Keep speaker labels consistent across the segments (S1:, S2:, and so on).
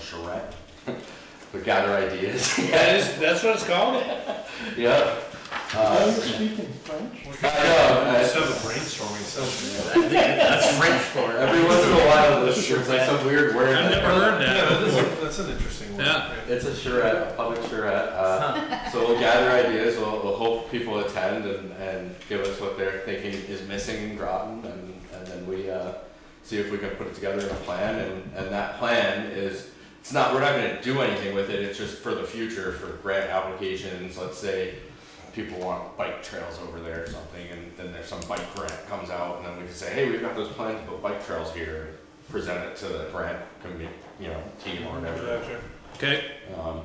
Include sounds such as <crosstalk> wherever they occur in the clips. S1: charrette, <laughs> but gather ideas. <laughs>
S2: That is, that's what it's called?
S1: yeah.
S3: Are
S1: Uh,
S3: you speaking French?
S1: I know. I-
S4: Let's have a brainstorming session.
S2: That's French for
S1: Every once in a while, there's there's like some weird word.
S2: I've never heard
S4: Yeah,
S2: that
S4: that is,
S2: before.
S4: a- that's an interesting one.
S2: Yeah.
S1: It's a charrette, a public charrette. Uh, so we'll gather ideas. We'll, we'll hope people attend and, and give us what they're thinking is missing in Groton, and, and then we uh, see if we can put it together in a plan. And, and that plan is it's not we're not going to do anything with it. It's just for the future for grant applications. Let's say people want bike trails over there or something, and then there's some bike grant comes out, and then we can say, hey, we've got those plans to put bike trails here. and Present it to the grant committee, you know, team or whatever.
S4: Gotcha.
S2: Okay,
S1: Um,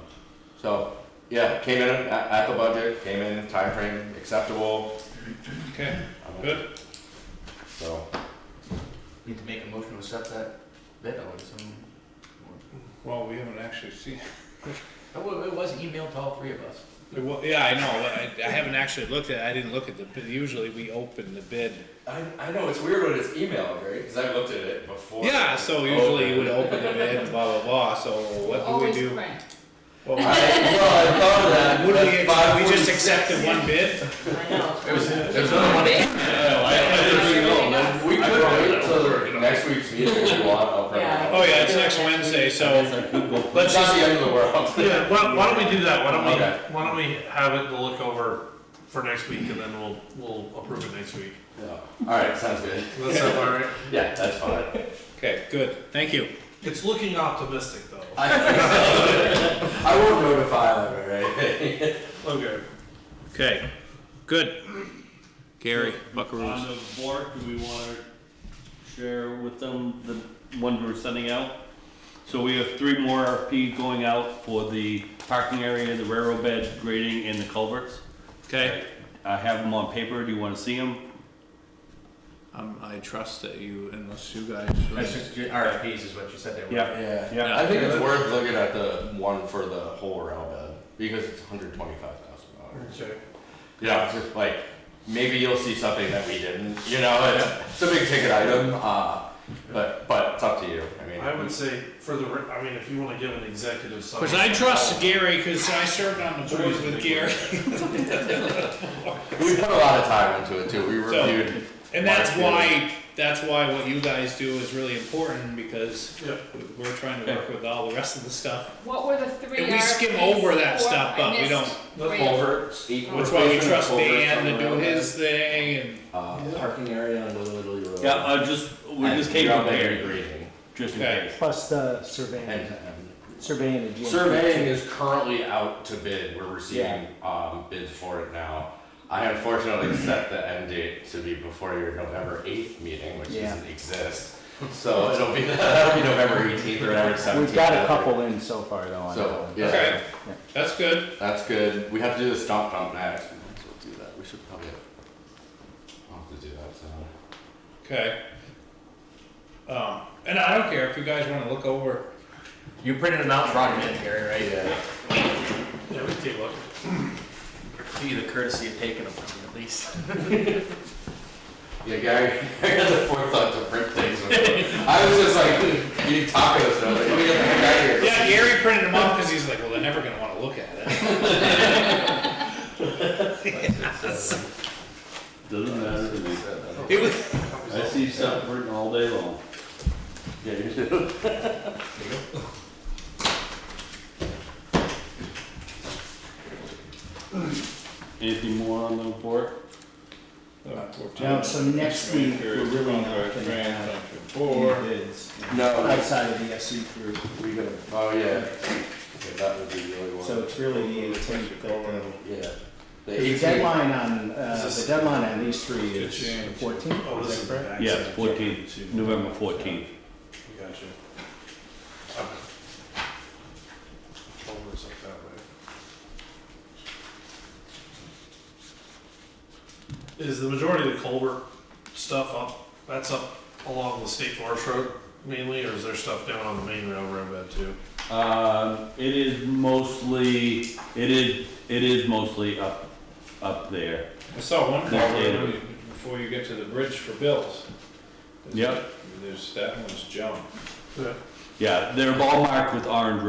S1: so, yeah, came in at, at the budget, came in time frame acceptable.
S2: okay,
S1: um,
S2: good.
S1: So,
S5: Need to make a motion to accept that bid, I would assume.
S2: Well, we haven't actually seen,
S5: It wa- It was emailed to all three of us.
S2: well, yeah, I know, I, I haven't actually looked at, I didn't look at the, bid. usually we open the bid.
S1: I, I know it's weird when it's emailed, right? Because I looked at it before.
S2: Yeah, so usually you would
S1: Open.
S2: open the bid and blah, blah, blah, so what do we
S6: Always
S2: do?
S6: print.
S2: What
S1: I, well, I thought of that.
S2: Would
S1: but
S2: we,
S1: five
S2: we just
S1: forty-
S2: accepted one bid?
S6: I know.
S5: There was, there was another one.
S6: Yeah,
S1: I didn't even know, man. We
S2: I
S1: could
S2: probably
S1: wait
S2: don't work it
S1: till
S2: out.
S1: next week's meeting if you want, I'll print it out.
S2: Oh, yeah, it's next Wednesday, so,
S1: It's
S2: let's
S1: not the
S2: just,
S1: end of the world. <laughs>
S4: Yeah, why, why don't we do that? Why don't
S1: Okay.
S4: we, why don't we have it to look over for next week and then we'll, we'll approve it next week.
S1: Yeah. Alright, sounds good.
S4: Does that sound all right?
S1: Yeah, that's <laughs> fine.
S2: okay, good, thank you.
S4: It's looking optimistic though.
S1: I, <laughs> I won't notify them, right? <laughs>
S4: Okay.
S2: Okay, good. Gary, Buckaroo.
S7: On the board, do we wanna share with them the ones we're sending out? So we have three more RFP going out for the parking area, the railroad bed grading, and the culverts.
S2: Okay,
S7: I have them on paper, do you wanna see them?
S2: um, I trust that you, unless you guys.
S5: That's just your RFPs is what you said they were.
S7: Yeah,
S1: Yeah.
S7: Yeah.
S1: I think it's worth looking at the one for the whole rail bed because it's hundred twenty-five thousand dollars.
S4: Okay.
S1: Yeah, it's just like, maybe you'll see something that we didn't, you know, it's, it's a big ticket item, uh, but, but it's up to you, I mean.
S4: I would say for the, re- I mean, if you wanna give an executive summary.
S2: Cause I trust Gary, cause I served on the board with Gary,
S1: We put a lot of time into it too, we reviewed.
S2: and that's why, that's why what you guys do is really important, because
S4: Yeah.
S2: we're trying to work with all the rest of the stuff.
S6: What were the three
S2: And we skim
S6: RFPs
S2: over that
S6: for?
S2: stuff,
S6: I
S2: but we
S6: missed
S2: don't-
S6: three.
S1: Culverts.
S3: Oh,
S2: That's why we trust Dan to do his thing and.
S1: Uh, parking area on Little Italy Road.
S7: yeah, I just, we
S1: And
S7: just came
S1: rail bed
S7: prepared,
S1: grading.
S7: just in
S2: Okay.
S7: case.
S3: Plus the
S1: And,
S3: surveying,
S1: um,
S3: surveying again.
S1: Surveying is currently out to bid, we're receiving, um, bids for it now. I unfortunately set the end date to be before your November eighth meeting, which
S3: Yeah.
S1: doesn't exist. So it'll be, <laughs> that'll be November eighteenth or November seventeenth.
S3: We've got a couple in so far though on that
S1: So,
S3: one.
S1: yeah,
S2: Okay, that's good.
S1: that's good, we have to do the stump dump next, we'll do that, we should probably, I'll have to do that, so.
S2: Okay. Um, and I don't care if you guys wanna look over,
S5: You printed them out, and brought them in, Gary, right?
S1: Yeah.
S4: Yeah, we can take a look.
S5: Give you the courtesy of taking them from me at least.
S1: Yeah, Gary, <laughs> I got the forethought to print things. I was just like, you tacos, and I was like, let me get the heck out of here.
S2: yeah, Gary printed them out, cause he's like, well, they're never gonna wanna look at it.
S7: Doesn't matter to me,
S2: It was,
S7: I see stuff written all day long. Yeah, you do. <laughs> Anything more on the board?
S3: Now, so next week, we're really not gonna have any bids
S1: No,
S3: outside of the SE group.
S1: we gotta, oh yeah. Yeah, that would be really one.
S3: So it's really the eighteenth that the,
S1: Yeah. The
S3: the
S1: 18th
S3: deadline on, uh,
S4: Is
S3: the
S4: this-
S3: deadline on these three is the fourteenth,
S4: Oh, this
S3: is
S4: is
S3: that correct?
S4: back.
S7: Yeah, fourteen, November fourteenth.
S4: Gotcha. Okay. Culvert's up that way. Is the majority of the culvert stuff up, that's up along the state forest road mainly, or is there stuff down on the main railroad bed too?
S7: Um, it is mostly, it is, it is mostly up, up there.
S2: I saw one
S7: Yeah.
S2: culvert before you get to the bridge for Bill's.
S7: Yep.
S2: There's, that one's junk.
S4: Yeah.
S7: Yeah, they're all marked with orange